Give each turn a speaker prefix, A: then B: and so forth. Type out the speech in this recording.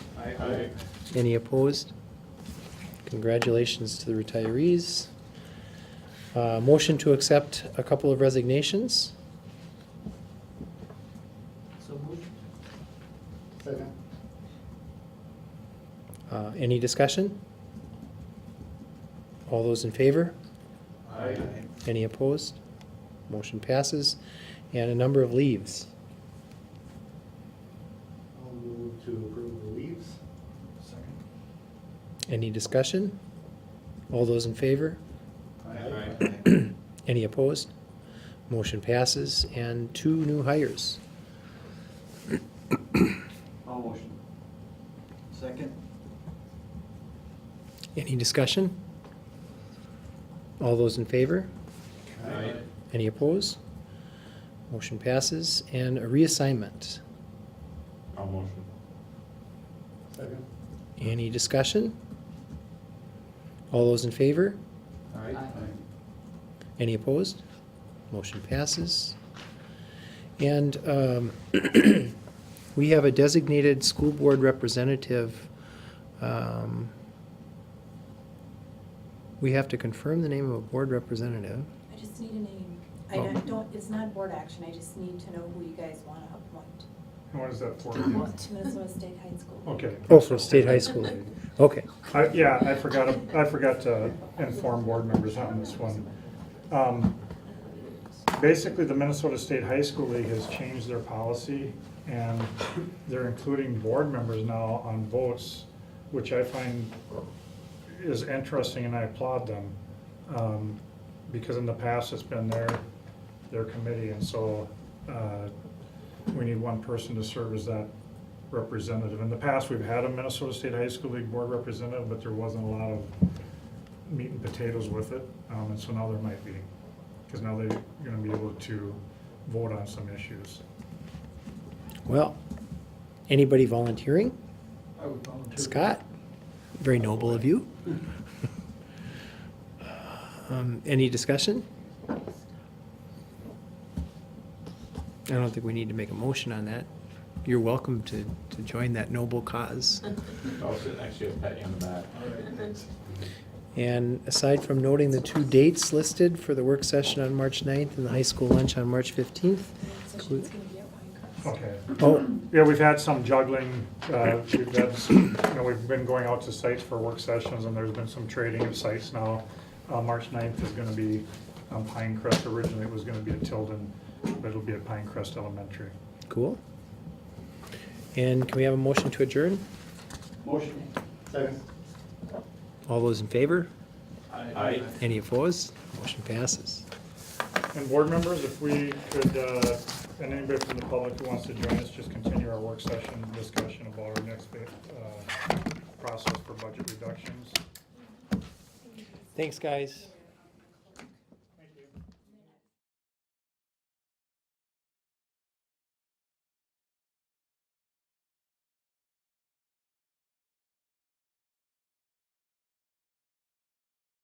A: Aye.
B: Any opposed? Congratulations to the retirees. Uh, Motion to accept a couple of resignations.
C: So moved.
A: Second.
B: Uh, Any discussion? All those in favor?
A: Aye.
B: Any opposed? Motion passes. And a number of leaves.
A: I'll move to approve the leaves. Second.
B: Any discussion? All those in favor?
A: Aye.
B: Any opposed? Motion passes. And two new hires.
C: All motion. Second.
B: Any discussion? All those in favor?
A: Aye.
B: Any opposed? Motion passes. And a reassignment.
D: I'll motion.
A: Second.
B: Any discussion? All those in favor?
A: Aye.
B: Any opposed? Motion passes. And um, we have a designated school board representative. um, We have to confirm the name of a board representative.
E: I just need a name. I
B: Oh.
E: don't- don't, it's not board action, I just need to know who you guys want to appoint
F: And what is that for?
E: to Minnesota State High School.
F: Okay.
B: Oh, for state high school. Okay.
F: I, yeah, I forgot, I forgot to inform board members on this one. Um, Basically, the Minnesota State High School League has changed their policy, and they're including board members now on votes, which I find is interesting, and I applaud them. Um, Because in the past, it's been their, their committee, and so uh, we need one person to serve as that representative. In the past, we've had a Minnesota State High School League Board representative, but there wasn't a lot of meat and potatoes with it, um, and so now there might be. Because now they're gonna be able to vote on some issues.
B: Well, anybody volunteering?
C: I would volunteer.
B: Scott, very noble of you. Um, Any discussion? I don't think we need to make a motion on that. You're welcome to, to join that noble cause.
D: I'll sit next to you, and pat you on the back.
B: And aside from noting the two dates listed for the work session on March 9th and the high school lunch on March 15th,
E: Session's gonna be at Pinecrest.
F: Okay.
B: oh,
F: Yeah, we've had some juggling, uh, we've had, some- you know, we've been going out to sites for work sessions, and there's been some trading of sites now. Uh, March 9th is gonna be on Pine Crest, originally it was gonna be at Tilden, but it'll be at Pine Crest Elementary.
B: cool. And can we have a motion to adjourn?
C: Motion.
A: Second.
B: All those in favor?
D: Aye.
B: Any opposed? Motion passes.
F: And board members, if we could, uh, and anybody from the public who wants to join us, just continue our work session discussion about our next uh, process for budget reductions.
B: Thanks, guys.